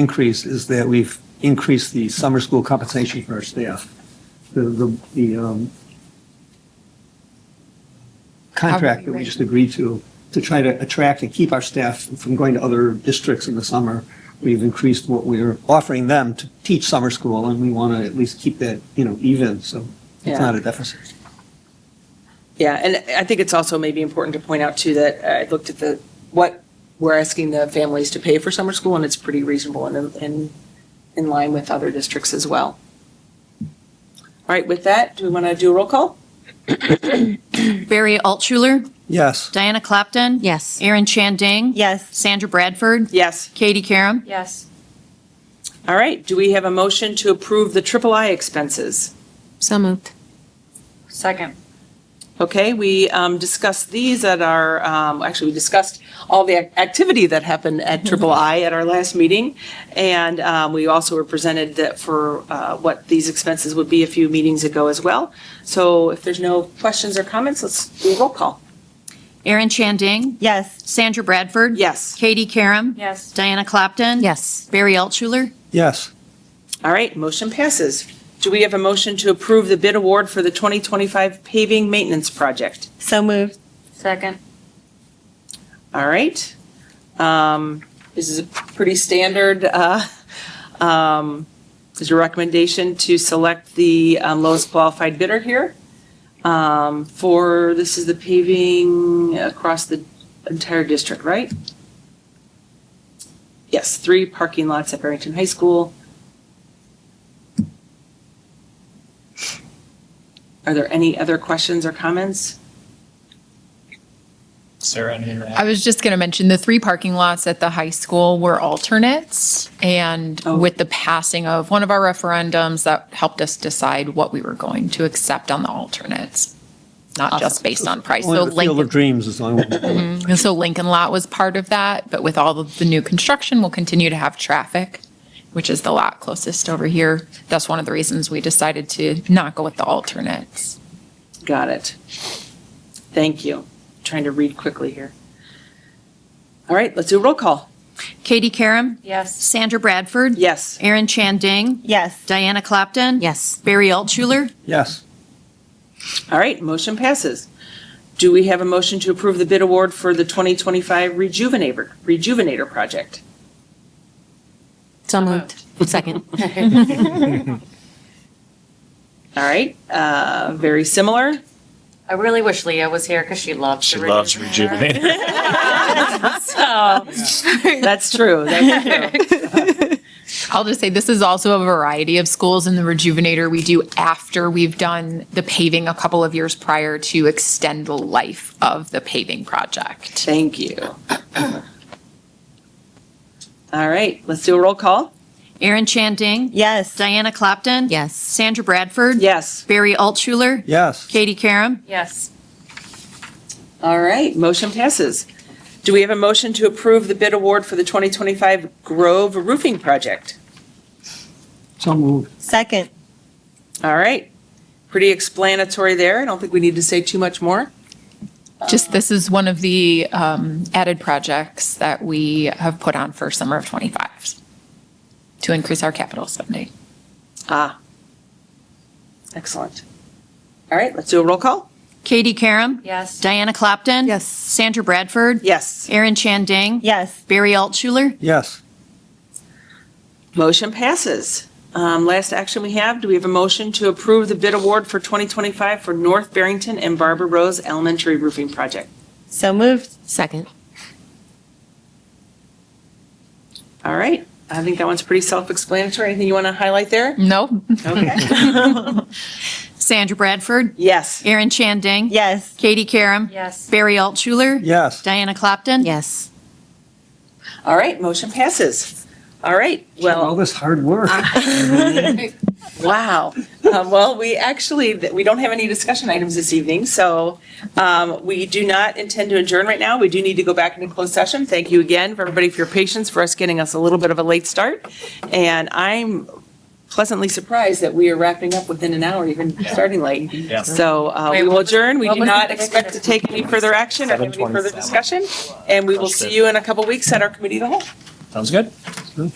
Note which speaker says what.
Speaker 1: increase is that we've increased the summer school compensation for our staff. The, the, the, um, contract that we just agreed to, to try to attract and keep our staff from going to other districts in the summer. We've increased what we're offering them to teach summer school and we want to at least keep that, you know, even, so it's
Speaker 2: Yeah.
Speaker 1: not a deficit.
Speaker 2: Yeah, and I think it's also maybe important to point out too that I looked at the, what we're asking the families to pay for summer school and it's pretty reasonable and in, in line with other districts as well. All right, with that, do we want to do a roll call?
Speaker 3: Barry Altshuler,
Speaker 1: Yes,
Speaker 3: Diana Clapton.
Speaker 4: Yes.
Speaker 3: Erin Chandang.
Speaker 4: Yes.
Speaker 3: Sandra Bradford.
Speaker 2: Yes.
Speaker 3: Katie Carum.
Speaker 4: Yes.
Speaker 2: All right, do we have a motion to approve the triple I expenses?
Speaker 4: So moved. Second.
Speaker 2: Okay, we um, discussed these at our, um, actually, we discussed all the ac- activity that happened at Triple I at our last meeting. And um, we also were presented that for uh, what these expenses would be a few meetings ago as well. So if there's no questions or comments, let's do a roll call.
Speaker 3: Erin Chandang.
Speaker 4: Yes.
Speaker 3: Sandra Bradford.
Speaker 2: Yes.
Speaker 3: Katie Carum.
Speaker 4: Yes.
Speaker 3: Diana Clapton.
Speaker 4: Yes.
Speaker 3: Barry Altshuler.
Speaker 1: yes,
Speaker 2: All right, motion passes. Do we have a motion to approve the bid award for the 2025 paving maintenance project?
Speaker 4: So moved. Second.
Speaker 2: All right. Um, This is a pretty standard, uh, um, is your recommendation to select the um, lowest qualified bidder here? Um, For, this is the paving across the entire district, right? Yes, three parking lots at Barrington High School. Are there any other questions or comments?
Speaker 5: Sarah, anything to
Speaker 6: I
Speaker 5: add?
Speaker 6: was just going to mention the three parking lots at the high school were alternates. And
Speaker 2: Oh.
Speaker 6: with the passing of one of our referendums, that helped us decide what we were going to accept on the alternates, not just based on price. Mm-hmm. So
Speaker 1: only the Field of
Speaker 6: Lincoln,
Speaker 1: Dreams is the only one.
Speaker 6: and so Lincoln Lot was part of that, but with all of the new construction, we'll continue to have traffic, which is the lot closest over here. That's one of the reasons we decided to not go with the alternates.
Speaker 2: Got it. Thank you. Trying to read quickly here. All right, let's do a roll call.
Speaker 3: Katie Carum.
Speaker 4: Yes.
Speaker 3: Sandra Bradford.
Speaker 2: Yes.
Speaker 3: Erin Chandang.
Speaker 4: Yes.
Speaker 3: Diana Clapton.
Speaker 4: Yes.
Speaker 3: Barry Altshuler.
Speaker 1: Yes,
Speaker 2: All right, motion passes. Do we have a motion to approve the bid award for the 2025 Rejuvenator, Rejuvenator Project?
Speaker 4: So moved. Second.
Speaker 2: All right, uh, very similar.
Speaker 7: I really wish Leah was here because she loves.
Speaker 5: She
Speaker 7: the
Speaker 5: loves
Speaker 7: Rejuvenator.
Speaker 5: rejuvenating.
Speaker 7: So,
Speaker 2: That's true. That's true.
Speaker 6: I'll just say this is also a variety of schools in the rejuvenator we do after we've done the paving a couple of years prior to extend the life of the paving project.
Speaker 2: Thank you. All right, let's do a roll call.
Speaker 3: Erin Chandang.
Speaker 4: Yes.
Speaker 3: Diana Clapton.
Speaker 4: Yes.
Speaker 3: Sandra Bradford.
Speaker 2: Yes.
Speaker 3: Barry Altshuler.
Speaker 1: yes.
Speaker 3: Katie Carum.
Speaker 7: yes.
Speaker 2: All right, motion passes. Do we have a motion to approve the bid award for the 2025 Grove Roofing Project?
Speaker 1: So moved.
Speaker 4: Second.
Speaker 2: All right, pretty explanatory there. I don't think we need to say too much more.
Speaker 6: Just this is one of the um, added projects that we have put on for summer of 25 to increase our capital spending.
Speaker 2: Ah, excellent. All right, let's do a roll call.
Speaker 3: Katie Carum.
Speaker 7: Yes.
Speaker 3: Diana Clapton.
Speaker 4: Yes.
Speaker 3: Sandra Bradford.
Speaker 2: Yes,
Speaker 3: Erin Chandang.
Speaker 4: Yes.
Speaker 3: Barry Altshuler.
Speaker 1: Yes,
Speaker 2: motion passes. Um, Last action we have, do we have a motion to approve the bid award for 2025 for North Barrington and Barbara Rose Elementary Roofing Project?
Speaker 4: So moved.
Speaker 7: Second.
Speaker 2: All right, I think that one's pretty self-explanatory. Anything you want to highlight there?
Speaker 6: No,
Speaker 2: Okay.
Speaker 3: Sandra Bradford.
Speaker 2: Yes.
Speaker 3: Erin Chandang.
Speaker 4: Yes.
Speaker 3: Katie Carum.
Speaker 7: Yes.
Speaker 3: Barry Altshuler.
Speaker 1: yes.
Speaker 3: Diana Clapton.
Speaker 4: Yes.
Speaker 2: All right, motion passes. All right,
Speaker 1: All
Speaker 2: well,
Speaker 1: this hard work.
Speaker 2: wow. Um, Well, we actually, th- we don't have any discussion items this evening, so um, we do not intend to adjourn right now. We do need to go back into closed session. Thank you again for everybody for your patience, for us getting us a little bit of a late start. And I'm pleasantly surprised that we are wrapping up within an hour, even starting late.
Speaker 5: Yeah.
Speaker 2: So uh,
Speaker 7: Wait,
Speaker 2: we will
Speaker 7: what was-
Speaker 2: adjourn. We
Speaker 7: what
Speaker 2: do
Speaker 7: was
Speaker 2: not
Speaker 7: the next
Speaker 2: expect to take any further action or have any further
Speaker 5: 7:27.
Speaker 2: discussion. And we will see you in a couple weeks at our committee of the whole.
Speaker 5: Sounds good.